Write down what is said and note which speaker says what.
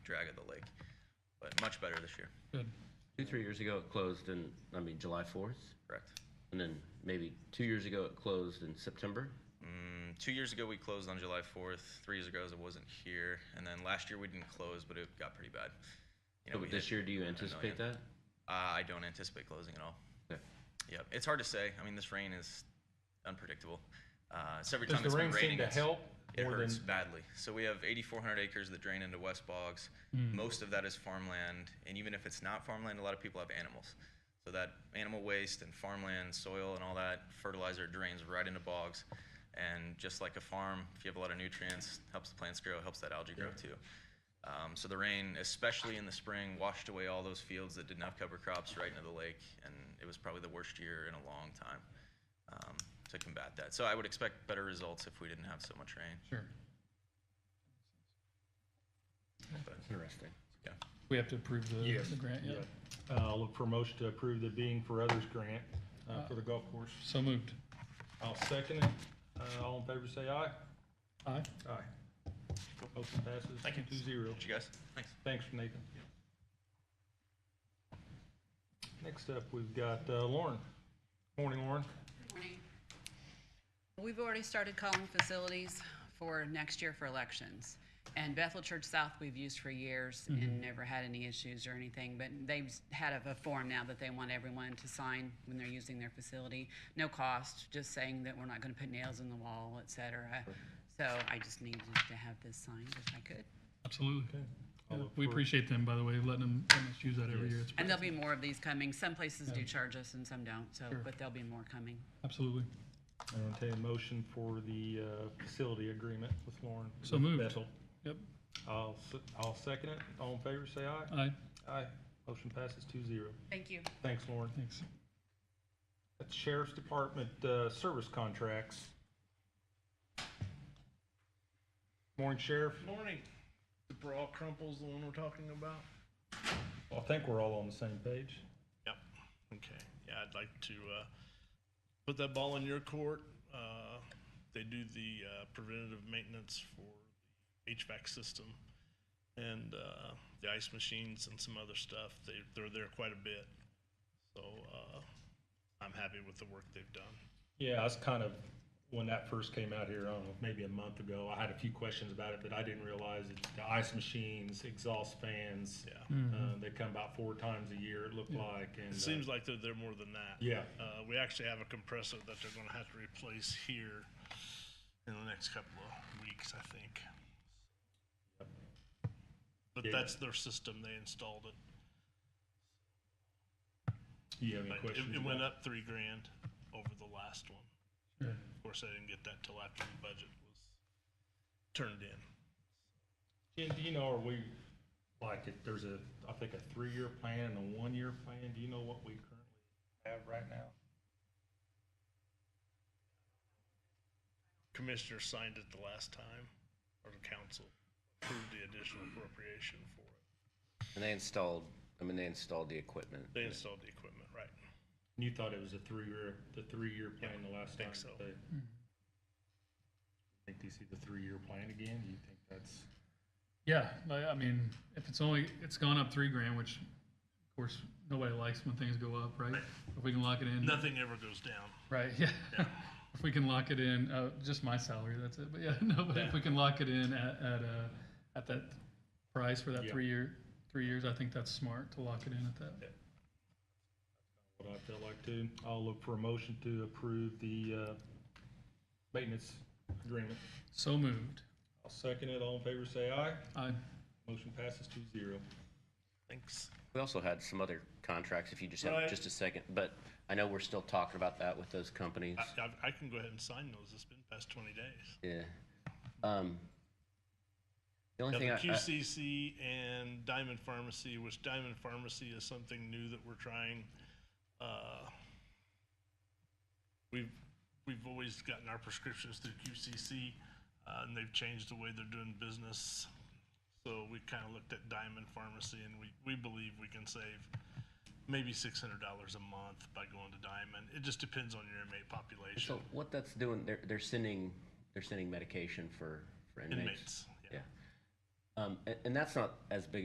Speaker 1: drag of the lake. But much better this year,
Speaker 2: Two, three years ago, it closed in, I mean, July 4th.
Speaker 1: correct?
Speaker 2: And then maybe two years ago, it closed in September.
Speaker 1: Mm, two years ago, we closed on July 4th. Three years ago, I wasn't here. And then last year, we didn't close, but it got pretty bad. You
Speaker 2: So
Speaker 1: we
Speaker 2: this
Speaker 1: hit-
Speaker 2: year, do you
Speaker 1: a
Speaker 2: anticipate
Speaker 1: million.
Speaker 2: that?
Speaker 1: Uh, I don't anticipate closing at all.
Speaker 2: Okay.
Speaker 1: Yep. It's hard to say. I mean, this rain is unpredictable. Uh, so every
Speaker 3: Does
Speaker 1: time
Speaker 3: the
Speaker 1: it's
Speaker 3: rain
Speaker 1: been raining,
Speaker 3: seem to
Speaker 1: it's-
Speaker 3: help?
Speaker 1: It
Speaker 3: more
Speaker 1: hurts
Speaker 3: than-
Speaker 1: badly. So we have 8,400 acres that drain into West Boggs.
Speaker 3: Hmm.
Speaker 1: Most of that is farmland, and even if it's not farmland, a lot of people have animals. So that animal waste and farmland, soil, and all that fertilizer drains right into bogs. And just like a farm, if you have a lot of nutrients, helps the plants grow, helps that algae grow too. Um, so the rain, especially in the spring, washed away all those fields that didn't have cover crops right into the lake, and it was probably the worst year in a long time um, to combat that. So I would expect better results if we didn't have so much rain.
Speaker 3: Sure.
Speaker 1: But
Speaker 2: Interesting.
Speaker 1: yeah,
Speaker 4: We have to approve the,
Speaker 3: Yes.
Speaker 4: the grant, yeah.
Speaker 3: Uh, I'll look for a motion to approve the Being for Others grant uh, for the golf course.
Speaker 4: So moved.
Speaker 3: I'll second it. Uh, All in favor, say aye.
Speaker 4: Aye.
Speaker 3: Aye. Motion passes.
Speaker 4: Thank you.
Speaker 3: Two zero.
Speaker 1: Did you guys, thanks.
Speaker 3: Thanks, Nathan. Next up, we've got uh, Lauren. Morning, Lauren.
Speaker 5: Morning. We've already started calling facilities for next year for elections. And Bethel Church South, we've used for years and never had any issues or anything, but they've s- had a- a form now that they want everyone to sign when they're using their facility. No cost, just saying that we're not gonna put nails in the wall, et cetera. So I just needed to have this signed if I could.
Speaker 4: Absolutely.
Speaker 3: I'll
Speaker 4: Yeah,
Speaker 3: look
Speaker 4: We
Speaker 3: for-
Speaker 4: appreciate them, by the way, letting them, letting us use that every year. It's
Speaker 5: And there'll be more of these coming. Some places do charge us and some don't, so,
Speaker 4: Sure.
Speaker 5: but there'll be more coming.
Speaker 4: Absolutely.
Speaker 3: I entertain a motion for the uh, facility agreement with Lauren.
Speaker 4: So
Speaker 3: with
Speaker 4: moved.
Speaker 3: Bethel.
Speaker 4: Yep.
Speaker 3: I'll, se- I'll second it. All in favor, say aye.
Speaker 4: Aye.
Speaker 3: Aye. Motion passes two zero.
Speaker 5: Thank you.
Speaker 3: Thanks, Lauren.
Speaker 4: Thanks.
Speaker 3: That's Sheriff's Department uh, service contracts. Morning, Sheriff.
Speaker 6: Morning. The bra crumples the one we're talking about?
Speaker 3: I think we're all on the same page.
Speaker 6: Yep. Okay. Yeah, I'd like to uh, put that ball in your court. Uh, they do the uh, preventative maintenance for HVAC system and uh, the ice machines and some other stuff. They, they're there quite a bit. So uh, I'm happy with the work they've done.
Speaker 3: Yeah, I was kind of, when that first came out here, I don't know, maybe a month ago, I had a few questions about it, but I didn't realize that the ice machines, exhaust fans,
Speaker 6: Yeah.
Speaker 3: uh, they come about four times a year, it looked like. and,
Speaker 6: It
Speaker 3: uh,
Speaker 6: seems like they're there more than that.
Speaker 3: Yeah.
Speaker 6: Uh, we actually have a compressor that they're going to have to replace here in the next couple of weeks, I think. But
Speaker 3: Yeah.
Speaker 6: that's their system. They installed it.
Speaker 3: You have any
Speaker 6: But
Speaker 3: questions?
Speaker 6: it, it went
Speaker 3: about-
Speaker 6: up three grand over the last one. Of course, I didn't get that till after the budget was turned in.
Speaker 3: Jen, do you know, are we, like, if there's a, I think a three-year plan and a one-year plan, do you know what we currently have right now?
Speaker 6: Commissioner signed it the last time, or the council approved the additional appropriation for it.
Speaker 2: And they installed, I mean, they installed the equipment.
Speaker 6: They installed the equipment, right?
Speaker 3: And You thought it was a three-year, the three-year plan the last time?
Speaker 6: think so.
Speaker 3: they- Think they see the three-year plan again? Do you think that's?
Speaker 4: Yeah, I, I mean, if it's only, it's gone up three grand, which of course, nobody likes when things go up, right? If we can lock it in.
Speaker 6: Nothing ever goes down.
Speaker 4: Right, yeah. If we can lock it in, uh, just my salary, that's it, but yeah, no, but if we can lock it in at, at, uh, at that price for that
Speaker 3: Yeah.
Speaker 4: three year, three years, I think that's smart to lock it in at that.
Speaker 3: What I felt like too. I'll look for a motion to approve the uh, maintenance agreement.
Speaker 4: So moved.
Speaker 3: I'll second it. All in favor, say aye.
Speaker 4: Aye.
Speaker 3: Motion passes two zero.
Speaker 6: Thanks.
Speaker 2: We also had some other contracts, if you just have
Speaker 6: Right.
Speaker 2: just a second, but I know we're still talking about that with those companies.
Speaker 6: I, I, I can go ahead and sign those. It's been past twenty days.
Speaker 2: Yeah. Um, The only
Speaker 6: Yeah,
Speaker 2: thing I.
Speaker 6: the
Speaker 2: I-
Speaker 6: QCC and Diamond Pharmacy, which Diamond Pharmacy is something new that we're trying. Uh, we've we've always gotten our prescriptions through QCC, uh, and they've changed the way they're doing business. So we kind of looked at Diamond Pharmacy, and we we believe we can save maybe six hundred dollars a month by going to Diamond. It just depends on your inmate population.
Speaker 2: So what that's doing, they're, they're sending, they're sending medication for, for inmates.
Speaker 6: Inmates, yeah.
Speaker 2: Yeah. Um, a- and that's not as big